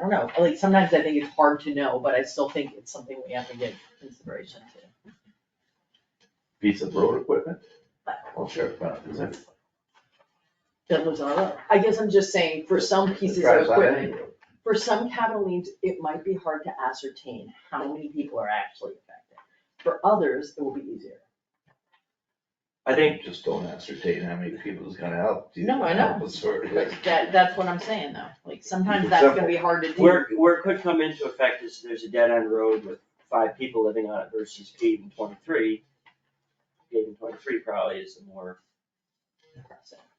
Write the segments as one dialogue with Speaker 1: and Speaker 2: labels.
Speaker 1: don't know, like sometimes I think it's hard to know, but I still think it's something we have to give consideration to.
Speaker 2: piece of road equipment? Well, sure, but is it?
Speaker 1: That lives on our road. I guess I'm just saying, for some pieces of
Speaker 2: Drives on any
Speaker 1: equipment,
Speaker 2: road.
Speaker 1: for some capital needs, it might be hard to ascertain how many people are actually affected. For others, it will be easier.
Speaker 2: I think just don't ascertain how many people is gonna help. you
Speaker 1: No, I know.
Speaker 2: help us sort of-
Speaker 1: But that, that's what I'm saying though, like sometimes
Speaker 2: It's
Speaker 1: that's gonna be hard to do.
Speaker 3: Where, where it could come into effect is there's a dead end road with five people living on it versus paving twenty-three. Paving twenty-three probably is the more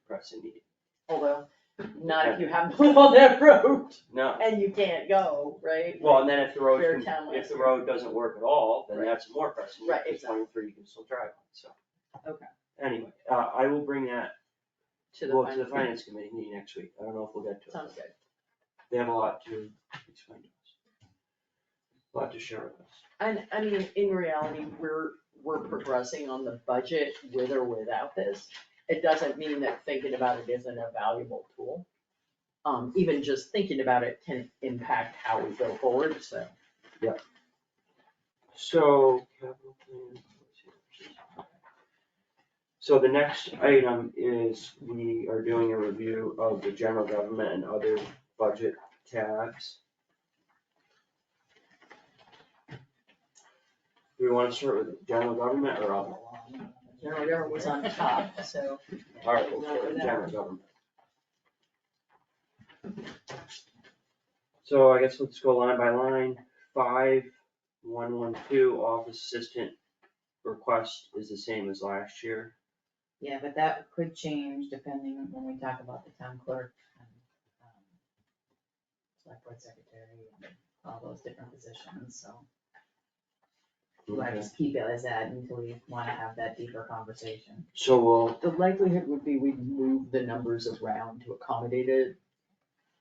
Speaker 3: pressing need.
Speaker 1: Although, not if you haven't put on that road
Speaker 3: No,
Speaker 1: and you can't go, right?
Speaker 3: well, and then if the road,
Speaker 1: Fair
Speaker 3: can-
Speaker 1: town
Speaker 3: if the
Speaker 1: line.
Speaker 3: road doesn't work at all, then
Speaker 1: Right.
Speaker 3: that's more pressing,
Speaker 1: Right,
Speaker 3: because
Speaker 1: exactly.
Speaker 3: twenty-three you can still drive on, so.
Speaker 1: Okay.
Speaker 3: Anyway, uh, I will bring that,
Speaker 1: To the
Speaker 3: well, to the
Speaker 1: final,
Speaker 3: finance committee meeting next week, I don't know if we'll get to it.
Speaker 1: sounds good.
Speaker 3: They have a lot to explain to us. A Lot to share with us.
Speaker 1: And I mean, in reality, we're, we're progressing on the budget with or without this. It doesn't mean that thinking about it isn't a valuable tool. Um, even just thinking about it can impact how we go forward, so.
Speaker 3: So, capital plan. So the next item is we are doing a review of the general government and other budget tabs. Do we wanna start with general government or other?
Speaker 1: General government was on top, so.
Speaker 3: Alright, we'll start with general government. So I guess let's go line by line, five, one, one, two, office assistant request is the same as last year.
Speaker 4: Yeah, but that could change depending on when we talk about the town clerk and, um, select board secretary and all those different positions, so. Do I just keep it as that until we wanna have that deeper conversation?
Speaker 3: So we'll,
Speaker 1: The likelihood would be we'd move the numbers around to accommodate a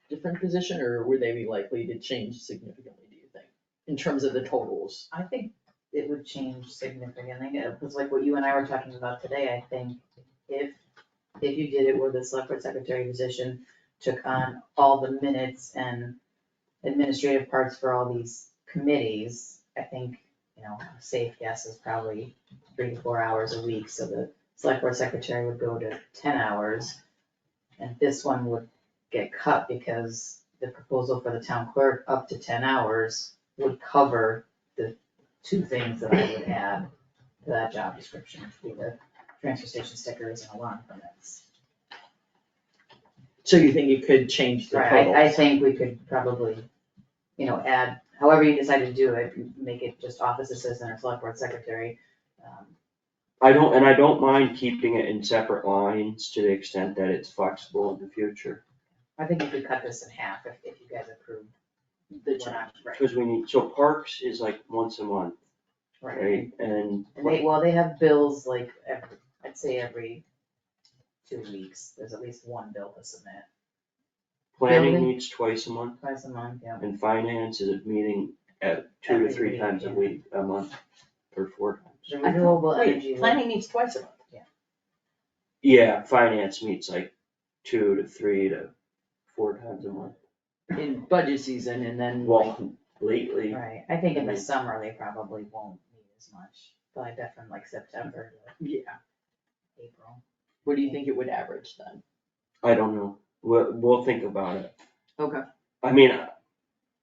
Speaker 1: different position, or would they be likely to change significantly, do you think? In terms of the totals?
Speaker 4: I think it would change significantly, because like what you and I were talking about today, I think if, if you did it where the select board secretary position took on all the minutes and administrative parts for all these committees, I think, you know, a safe guess is probably three to four hours a week, so the select board secretary would go to ten hours. And this one would get cut because the proposal for the town clerk up to ten hours would cover two things that I would add to that job description, which would be the transfer station stickers and alarm permits.
Speaker 1: So you think it could change the
Speaker 4: Right, I, I
Speaker 1: totals?
Speaker 4: think we could probably, you know, add, however you decide to do it, make it just office assistant or select board secretary. um,
Speaker 3: I don't, and I don't mind keeping it in separate lines to the extent that it's flexible in the future.
Speaker 4: I think you could cut this in half if, if you guys approve.
Speaker 1: The
Speaker 4: what I'm- Right,
Speaker 3: Cause we need, so parks is like once a month,
Speaker 4: right.
Speaker 3: right? And
Speaker 4: And they, well, they have bills like every, I'd say every two weeks, there's at least one bill to submit,
Speaker 3: planning
Speaker 4: Building.
Speaker 3: meets twice a month
Speaker 4: twice a month, yeah.
Speaker 3: and finance is a meeting at two to
Speaker 4: Every
Speaker 3: three
Speaker 4: week,
Speaker 3: times a
Speaker 4: yeah.
Speaker 3: week, a month, or four times.
Speaker 4: The renewable energy.
Speaker 1: Wait, planning needs twice a month.
Speaker 3: Yeah, finance meets like two to three to four times a month.
Speaker 1: in budget season and then like,
Speaker 3: Well, lately,
Speaker 4: Right, I think in
Speaker 3: Mm-hmm.
Speaker 4: the summer, they probably won't need as much, probably definitely like September
Speaker 1: yeah,
Speaker 4: to April.
Speaker 1: what do you think it would average then?
Speaker 3: I don't know, we'll, we'll think about it.
Speaker 1: Okay.
Speaker 3: I mean, uh,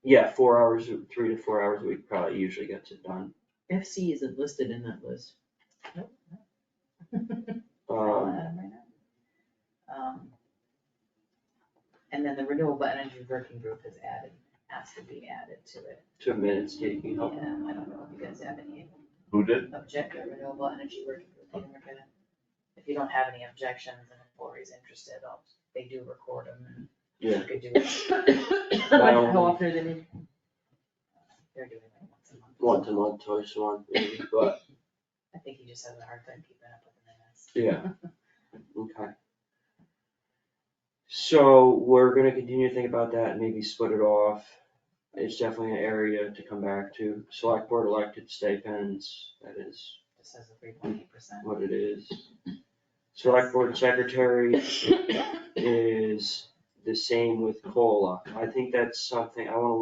Speaker 3: yeah, four hours, three to four hours a week probably usually gets it done.
Speaker 1: FC isn't listed in that list.
Speaker 4: I'll
Speaker 3: Um,
Speaker 4: add 'em right now. Um, And then the renewable energy working group is added, has to be added to it.
Speaker 3: two minutes taking
Speaker 4: Yeah,
Speaker 3: up.
Speaker 4: I don't know if you guys have any
Speaker 2: Who did?
Speaker 4: objection, renewable energy working group, I think we're gonna, if you don't have any objections and if Lori's interested, I'll, they do record them and
Speaker 3: Yeah.
Speaker 4: you could do it,
Speaker 3: Um,
Speaker 1: How often are they meeting?
Speaker 4: they're doing it once a month.
Speaker 3: Once a month, twice a month, maybe, but,
Speaker 4: I think he just has a hard time keeping up with the minutes.
Speaker 3: yeah, okay. So we're gonna continue to think about that, maybe split it off. It's definitely an area to come back to. Select board elected stipends, that is
Speaker 4: Just has a three point eight percent.
Speaker 3: what it is. Select board secretary is the the same with COLA. I think that's something, I wanna